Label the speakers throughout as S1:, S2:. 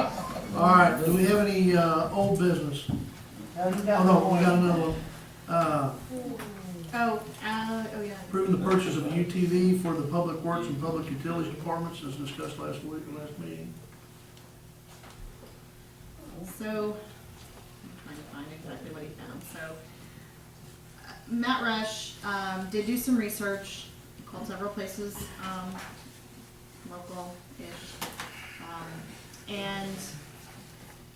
S1: All right, do we have any, uh, old business?
S2: No, you
S1: Oh,
S2: got
S1: no, we got
S2: one.
S1: another one. Uh,
S3: Oh, uh, oh, yeah.
S1: approving the purchase of a UTV for the Public Works and Public Utilities Departments as discussed last week, last meeting.
S3: So, I'm trying to find exactly what he found, so. uh, Matt Rush, um, did do some research, called several places, um, local-ish. um, And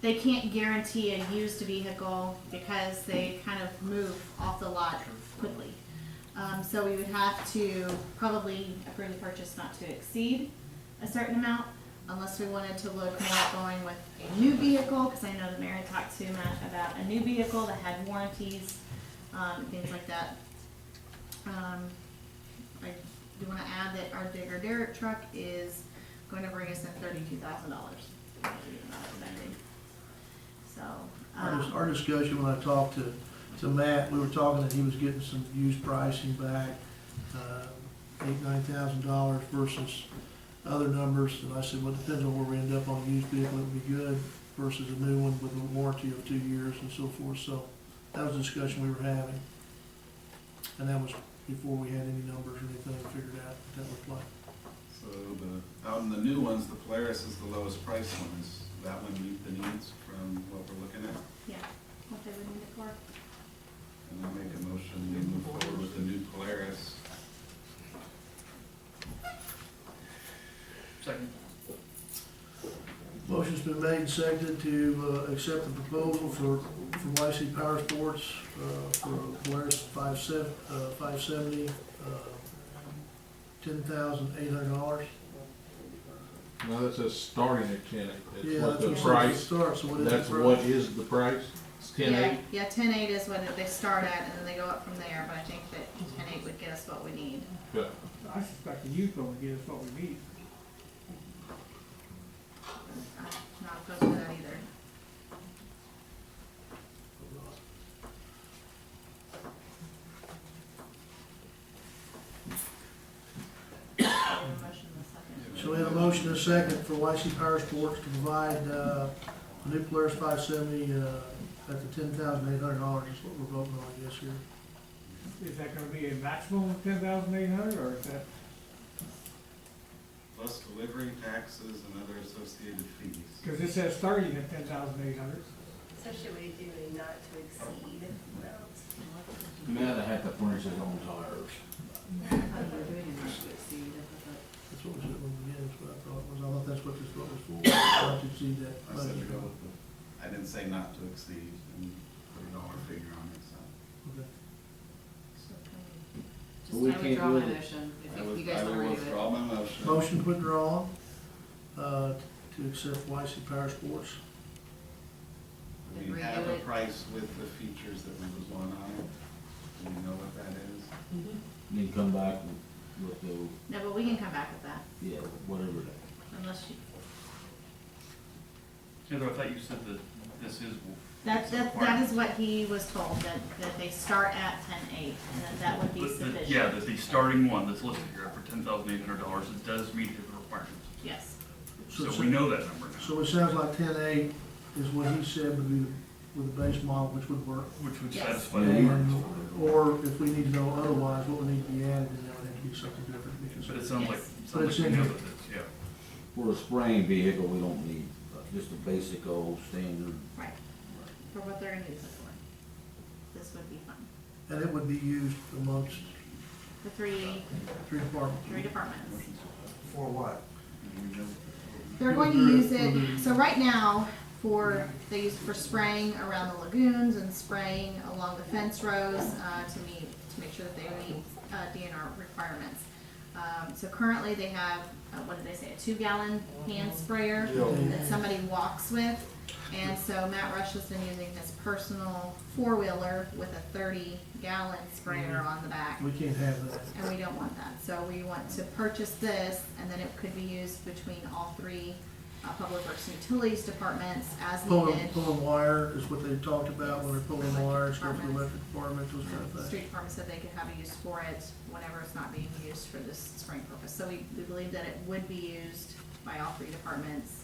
S3: they can't guarantee a used vehicle because they kind of move off the lot quickly. Um, so we would have to probably approve the purchase not to exceed a certain amount, unless we wanted to look more at going with a new vehicle, because I know the mayor talked to Matt about a new vehicle that had warranties, um, things like that. Um, I do wanna add that our digger Derrick truck is gonna bring us in thirty-two thousand dollars. So,
S1: Our, dis-
S3: um,
S1: our discussion, when I talked to, to Matt, we were talking that he was getting some used pricing back, uh, eight, nine thousand dollars versus other numbers, and I said, well, it depends on where we end up on a used vehicle, it would be good versus a new one with a warranty of two years and so forth, so that was the discussion we were having. And that was before we had any numbers or anything figured out what that looked like.
S4: So the, out in the new ones, the Polaris is the lowest priced one. Does that one meet the needs from what we're looking at?
S3: yeah, what they would need it for.
S4: And I make a motion, we move forward with the new Polaris.
S1: Motion's been made and seconded to uh, accept the proposal for, from YC Power Sports uh, for a Polaris five sev- uh, five seventy, uh, ten thousand eight hundred dollars.
S5: No, that says starting at ten eight,
S1: Yeah,
S5: that's what
S1: that's what it says
S5: the
S1: to
S5: price,
S1: start, so what is
S5: that's
S1: the
S5: what
S1: price?
S5: is the price, it's ten
S3: Yeah,
S5: eight.
S3: Yeah, ten eight is what they start at, and then they go up from there, but I think that ten eight would get us what we need.
S5: But
S6: I suspect the youth will get us what we need.
S3: I'm not opposed to that either. Motion in a second.
S1: So we have a motion and a second for YC Power Sports to provide uh, the new Polaris five seventy uh, at the ten thousand eight hundred dollars, is what we're voting on, I guess, here.
S6: Is that gonna be a maximum of ten thousand eight hundred, or is that,
S4: Plus delivery taxes and other associated fees.
S6: because it says starting at ten thousand eight hundred?
S7: So should we do a not to exceed amount?
S8: Man, I have to furnish his own tires.
S1: That's what was it when we did, that's what I thought, was, I thought that's what this vote was for, I did see that.
S4: I said to go with the, I didn't say not to exceed and put a dollar figure on it, so.
S1: Okay.
S8: But we can't do it.
S4: I would- I will withdraw my motion.
S1: Motion to withdraw, uh, to accept YC Power Sports.
S4: We have a price with the features that we was on on it. Do we know what that is?
S8: Then come back with, with the,
S3: No, but we can come back with that,
S8: yeah, whatever.
S3: unless you,
S9: Heather, I thought you said that this is.
S3: that, that, that is what he was told, that, that they start at ten eight, and that that would be
S9: But the-
S3: sufficient.
S9: Yeah, that the starting one that's listed here for ten thousand eight hundred dollars, it does meet his requirements.
S3: Yes,
S1: So-
S9: So we know that number now,
S1: So it sounds like ten eight is what he said would be, with the base model, which would work.
S9: which would
S3: Yes.
S9: satisfy the requirements.
S1: And, or if we need to know otherwise, what would need to be added, then that would have to be something different. because-
S9: But it sounds like,
S3: Yes.
S1: But
S9: sounds
S1: it's
S9: like we
S1: in
S9: know
S1: here.
S9: that it's, yeah.
S8: For a spraying vehicle, we don't need, uh, just a basic old standard.
S3: right, for what they're gonna use it for. This would be fun.
S1: And it would be used amongst
S3: The three,
S1: three departments.
S3: three departments.
S2: For what?
S4: Do we know?
S3: They're going to use it, so right now, for, they use it for spraying around the lagoons and spraying along the fence rows, uh, to meet, to make sure that they meet, uh, DNR requirements. Um, so currently they have, uh, what did they say, a two gallon hand sprayer that somebody walks with. And so Matt Rush has been using his personal four wheeler with a thirty gallon sprayer on the back.
S1: We can't have that.
S3: and we don't want that. So we want to purchase this, and then it could be used between all three uh, public works and utilities departments as
S1: Pulling,
S3: needed.
S1: pulling wire is what they talked about, when they're pulling wire, it's going to the
S3: Departments.
S1: electric department, those kind of
S3: Um, Street
S1: things.
S3: department said they could have a use for it whenever it's not being used for this spring purpose. So we, we believe that it would be used by all three departments